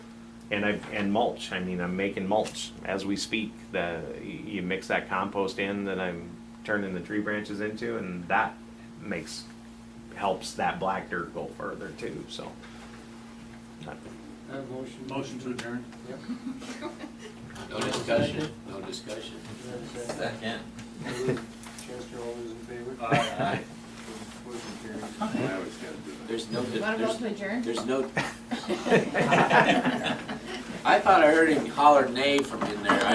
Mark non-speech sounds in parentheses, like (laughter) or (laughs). And I, and mulch, I mean, I'm making mulch as we speak, the, you mix that compost in that I'm turning the tree branches into and that makes, helps that black dirt go further too, so. I have a motion. Motion to adjourn. Yep. No discussion, no discussion. Do I have a second? Second. Chester, all those in favor? Aye. Motion carries. There's no, Want to vote there's, to adjourn? there's no. (laughs) I thought I heard him holler nay from in there.